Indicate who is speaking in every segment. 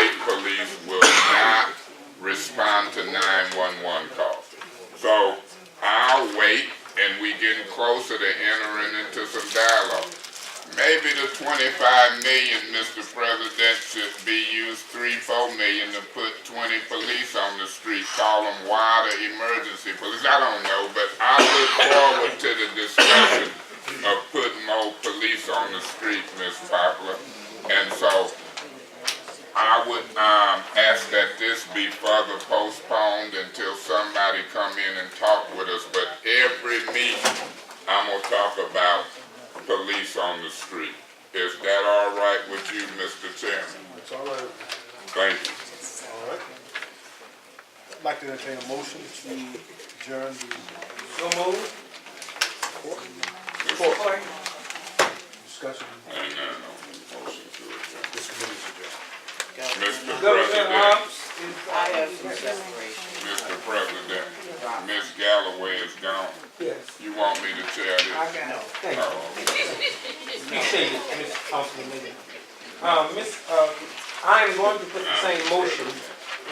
Speaker 1: employees will not respond to nine-one-one calls. So I'll wait and we getting closer to entering into some dialogue. Maybe the twenty-five million, Mr. President, should be used three, four million to put twenty police on the street, call them water emergency police, I don't know, but I look forward to the discussion of putting more police on the street, Ms. Poplar. And so I would, um, ask that this be further postponed until somebody come in and talk with us, but every meeting, I'm gonna talk about police on the street. Is that all right with you, Mr. Chairman?
Speaker 2: It's all right.
Speaker 1: Thank you.
Speaker 2: All right. I'd like to entertain a motion to adjourn the
Speaker 3: So moved.
Speaker 2: discussion.
Speaker 1: And, uh, motion to adjourn.
Speaker 2: This committee is adjourned.
Speaker 1: Mr.
Speaker 3: Governor
Speaker 1: President,
Speaker 3: Hobbs is. I
Speaker 4: um,
Speaker 3: have some separation.
Speaker 1: Mr. President, Miss Galloway is gone.
Speaker 3: Yes.
Speaker 1: You want me to tell
Speaker 3: I
Speaker 1: this?
Speaker 3: got it. Thank you.
Speaker 1: Oh,
Speaker 3: Appreciate it, Ms. Councilman Lee. Uh, Ms., uh, I am going to put the same motion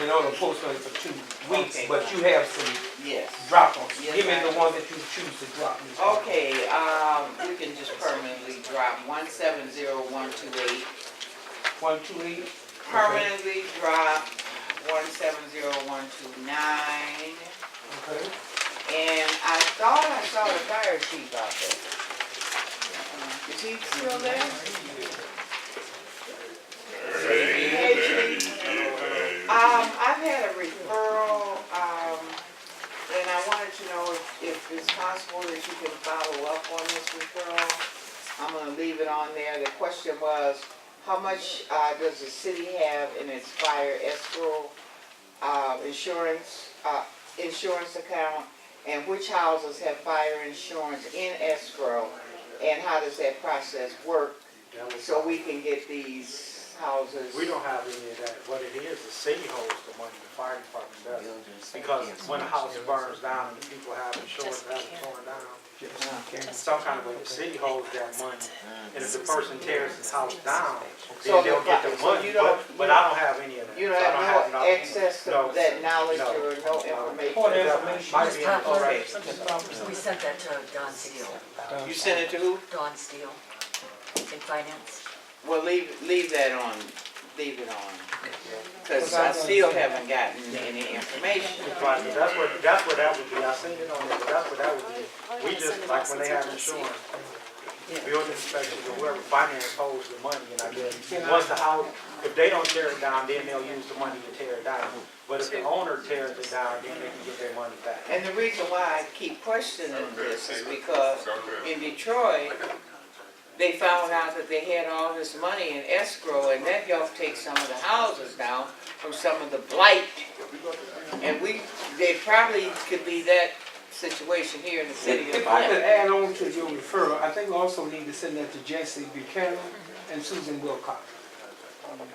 Speaker 3: in order to postpone for two weeks,
Speaker 4: Okay.
Speaker 3: but you have some
Speaker 4: Yes.
Speaker 3: drop-offs.
Speaker 4: Yes,
Speaker 3: Give me
Speaker 4: I-
Speaker 3: the one that you choose to drop. Ms. Hobbs.
Speaker 4: Okay, um, we can just permanently drop one seven zero one two eight. Oh.
Speaker 3: One, two, eight.
Speaker 4: Permanently drop one seven zero one two nine.
Speaker 3: Okay.
Speaker 4: And I thought I saw the fire chief out there. Is he still there? Hey, chief. Um, I've had a referral, um, and I wanted to know if, if it's possible that you can follow up on this referral. I'm gonna leave it on there. The question was, how much, uh, does the city have in its fire escrow, uh, insurance, uh, insurance account? And which houses have fire insurance in escrow? And how does that process work? So we can get these houses.
Speaker 5: We don't have any of that. What it is, the city holds the money, the fire department doesn't. Because when a house burns down and the people have insurance, that it's torn down, some kind of way, the city holds that money. And if the person tears his house down,
Speaker 4: So
Speaker 5: then they'll get the
Speaker 4: the- so you
Speaker 5: money,
Speaker 4: don't-
Speaker 5: but, but I don't have any of that.
Speaker 4: You
Speaker 5: So
Speaker 4: don't
Speaker 5: I don't
Speaker 4: have no
Speaker 5: nothing.
Speaker 4: access to
Speaker 5: No,
Speaker 4: that knowledge
Speaker 5: no,
Speaker 4: or no
Speaker 5: no.
Speaker 3: Point of
Speaker 4: information?
Speaker 3: information.
Speaker 5: Might be
Speaker 6: Ms.
Speaker 5: in the
Speaker 6: Poplar,
Speaker 5: already.
Speaker 6: Ms. Poplar, we sent that to Don Steele,
Speaker 4: You sent it to who?
Speaker 6: Don Steele in finance.
Speaker 4: Well, leave, leave that on, leave it on. Cause I still haven't gotten any information.
Speaker 5: Right, but that's what, that's what that would be. I seen it on there, but that's what that would be. We just, like when they have insurance, building inspectors or whoever finance holds the money, and I guess, once the house, if they don't tear it down, then they'll use the money to tear it down. But if the owner tears it down, then they can get their money back.
Speaker 4: And the reason why I keep questioning this is because in Detroit, they found out that they had all this money in escrow and that y'all take some of the houses down from some of the blight. And we, they probably could be that situation here in the city of
Speaker 7: If I could
Speaker 4: Atlanta.
Speaker 7: add on to your referral, I think we also need to send that to Jesse Buchanan and Susan Wilcox.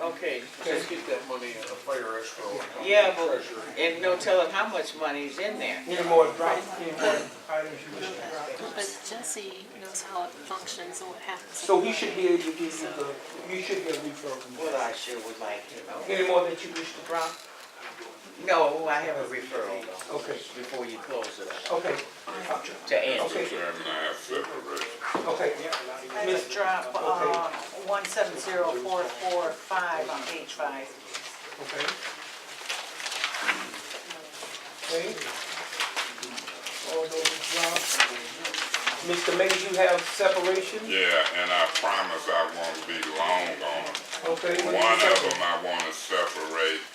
Speaker 4: Okay,
Speaker 7: Just
Speaker 4: get that money
Speaker 8: the fire escrow. account,
Speaker 4: Yeah, but,
Speaker 8: treasury.
Speaker 4: and no telling how much money's in there.
Speaker 7: Any more drop, any more items you wish to drop?
Speaker 9: But Jesse knows how it functions and what happens.
Speaker 7: So he should be able to give you the, you should get a referral from
Speaker 4: Well,
Speaker 7: him.
Speaker 4: I sure would like to know.
Speaker 7: Any more that you wish to drop?
Speaker 4: No, I have a referral
Speaker 7: Okay,
Speaker 4: before you close it up
Speaker 7: okay,
Speaker 4: to Angie.
Speaker 1: Mr. Chairman, I have separation.
Speaker 7: okay.
Speaker 10: Let's drop, uh, one seven zero four four five on page five.
Speaker 7: Okay. Okay. All those drops. Mr. Mays, you have separation?
Speaker 1: Yeah, and I promise I won't be long on it.
Speaker 7: Okay.
Speaker 1: One of them I wanna separate um, um, um,